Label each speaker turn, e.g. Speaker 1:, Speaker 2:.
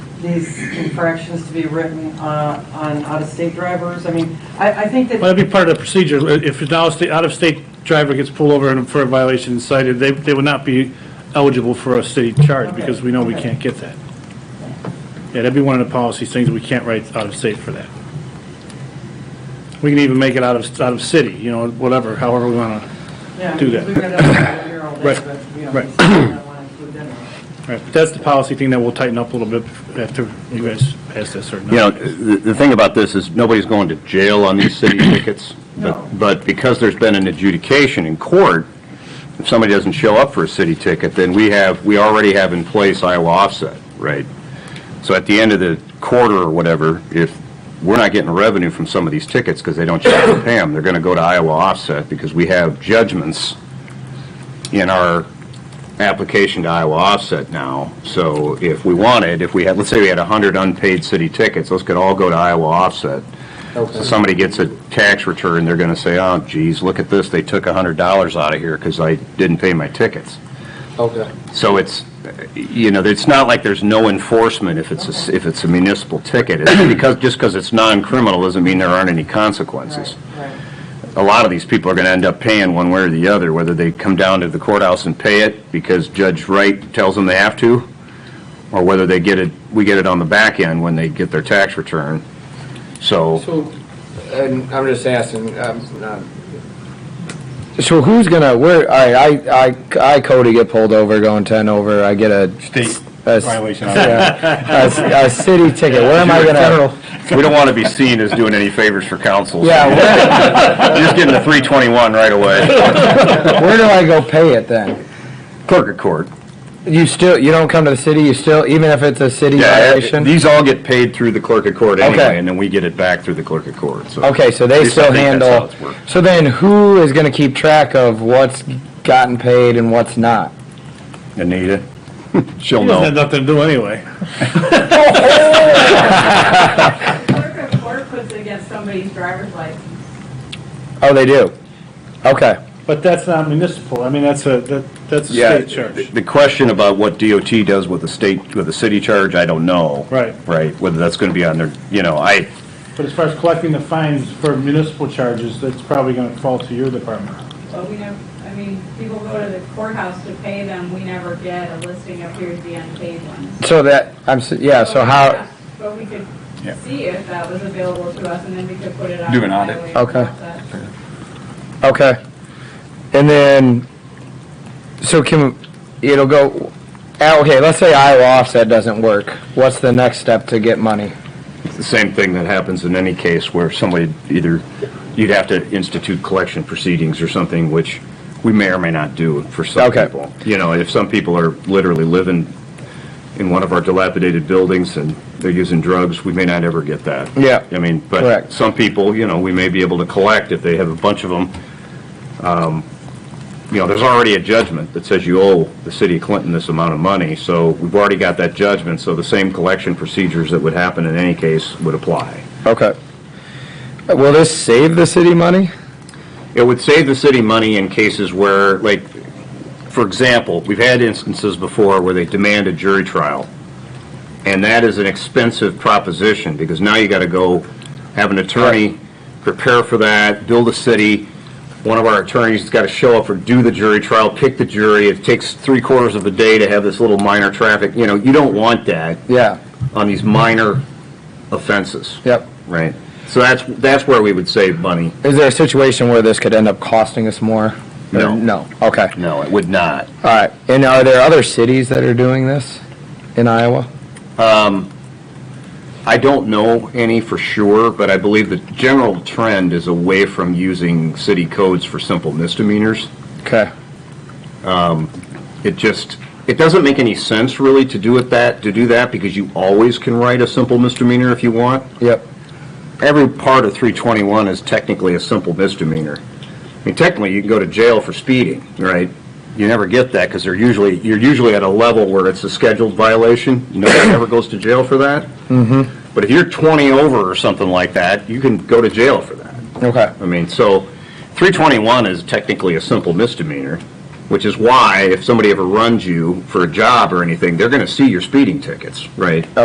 Speaker 1: these infractions to be written uh, on out-of-state drivers? I mean, I, I think that.
Speaker 2: Well, that'd be part of the procedure. If an out-of-state, out-of-state driver gets pulled over and for a violation and cited, they, they would not be eligible for a city charge
Speaker 1: Okay,
Speaker 2: because we know we
Speaker 1: okay.
Speaker 2: can't get that. Yeah, that'd be one of the policy things. We can't write out-of-state for that. We can even make it out of, out of city, you know, whatever, however we want to.
Speaker 1: Yeah,
Speaker 2: do
Speaker 1: because
Speaker 2: that.
Speaker 1: We've got that here all day,
Speaker 2: Right,
Speaker 1: but, you know,
Speaker 2: right.
Speaker 1: we still don't want to include them.
Speaker 2: But that's the policy thing that we'll tighten up a little bit after you guys pass this or not.
Speaker 3: You know, the, the thing about this is nobody's going to jail on these city tickets.
Speaker 1: No.
Speaker 3: But, but because there's been an adjudication in court, if somebody doesn't show up for a city ticket, then we have, we already have in place Iowa offset, right? So at the end of the quarter or whatever, if we're not getting revenue from some of these tickets because they don't show up to pay them, they're going to go to Iowa offset because we have judgments in our application to Iowa offset now. So if we wanted, if we had, let's say we had 100 unpaid city tickets, those could all go to Iowa offset. So somebody gets a tax return, they're going to say, oh geez, look at this, they took $100 out of here because I didn't pay my tickets.
Speaker 4: Okay.
Speaker 3: So it's, you know, it's not like there's no enforcement if it's, a- if it's a municipal ticket. It's because, just because it's non-criminal doesn't mean there aren't any consequences.
Speaker 1: Right, right.
Speaker 3: A lot of these people are going to end up paying one way or the other, whether they come down to the courthouse and pay it because Judge Wright tells them they have to, or whether they get it, we get it on the back end when they get their tax return. So,
Speaker 4: So, and I'm just asking, um, I'm not.
Speaker 5: So who's gonna, where, all right, I, I, I Cody get pulled over going ten over, I get a.
Speaker 3: State
Speaker 5: a s-
Speaker 3: violation.
Speaker 5: yeah, A, s- a city ticket, where am I gonna?
Speaker 3: we don't want to be seen as doing any favors for council. so
Speaker 5: Yeah, where,
Speaker 3: Just getting a 321 right away.
Speaker 5: where do I go pay it then?
Speaker 3: Clerk of court.
Speaker 5: You still, you don't come to the city, you still, even if it's a city
Speaker 3: Yeah,
Speaker 5: violation?
Speaker 3: These all get paid through the clerk of court anyway,
Speaker 5: Okay.
Speaker 3: and then we get it back through the clerk of court, so.
Speaker 5: Okay, so
Speaker 3: At
Speaker 5: they
Speaker 3: least I
Speaker 5: still
Speaker 3: think that's how
Speaker 5: handle,
Speaker 3: it's worked.
Speaker 5: so then who is gonna keep track of what's gotten paid and what's not?
Speaker 3: Anita, she'll
Speaker 2: It doesn't have
Speaker 3: know.
Speaker 2: nothing to do anyway.
Speaker 6: Clerk of court puts it against somebody's driver's license.
Speaker 5: Oh, they do? Okay,
Speaker 2: But that's not municipal. I mean, that's a, that that's a
Speaker 3: Yeah,
Speaker 2: state
Speaker 3: the
Speaker 2: charge.
Speaker 3: the question about what DOT does with the state, with the city charge, I don't know.
Speaker 2: Right.
Speaker 3: Right, whether that's going to be on their, you know, I,
Speaker 2: But as far as collecting the fines for municipal charges, that's probably going to fall to your department.
Speaker 6: But we never, I mean, people go to the courthouse to pay them, we never get a listing of here's the unpaid ones.
Speaker 5: so that, I'm, s- yeah, so how,
Speaker 6: But we could
Speaker 3: Yeah.
Speaker 6: see if that was available to us, and then we could put it on.
Speaker 3: Do an audit.
Speaker 6: highway
Speaker 5: Okay.
Speaker 6: process.
Speaker 5: Okay. And then, so can, it'll go, ah, okay, let's say Iowa offset doesn't work. What's the next step to get money?
Speaker 3: it's the same thing that happens in any case where somebody either, you'd have to institute collection proceedings or something, which we may or may not do for some
Speaker 5: Okay.
Speaker 3: people. You know, if some people are literally living in one of our dilapidated buildings and they're using drugs, we may not ever get that.
Speaker 5: Yeah.
Speaker 3: I mean, but
Speaker 5: Correct.
Speaker 3: some people, you know, we may be able to collect if they have a bunch of them. You know, there's already a judgment that says you owe the city of Clinton this amount of money, so we've already got that judgment, so the same collection procedures that would happen in any case would apply.
Speaker 5: Okay. Will this save the city money?
Speaker 3: It would save the city money in cases where, like, for example, we've had instances before where they demand a jury trial. And that is an expensive proposition, because now you gotta go have an attorney prepare for that, build a city. One of our attorneys has gotta show up or do the jury trial, pick the jury. It takes three quarters of a day to have this little minor traffic, you know, you don't want that
Speaker 5: Yeah,
Speaker 3: on these minor offenses,
Speaker 5: yep.
Speaker 3: right? So that's, that's where we would save money.
Speaker 5: Is there a situation where this could end up costing us more?
Speaker 3: No.
Speaker 5: No, okay, all
Speaker 3: No, it would not.
Speaker 5: right. And are there other cities that are doing this in Iowa?
Speaker 3: I don't know any for sure, but I believe the general trend is away from using city codes for simple misdemeanors.
Speaker 5: Okay,
Speaker 3: It just, it doesn't make any sense really to do it that, to do that, because you always can write a simple misdemeanor if you want.
Speaker 5: yep,
Speaker 3: Every part of 321 is technically a simple misdemeanor. I mean, technically, you can go to jail for speeding, right? You never get that, because they're usually, you're usually at a level where it's a scheduled violation. Nobody ever goes to jail for that. Mm-hmm. But if you're 20 over or something like that, you can go to jail for that.
Speaker 5: okay,
Speaker 3: I mean, so 321 is technically a simple misdemeanor, which is why if somebody ever runs you for a job or anything, they're going to see your speeding tickets, right?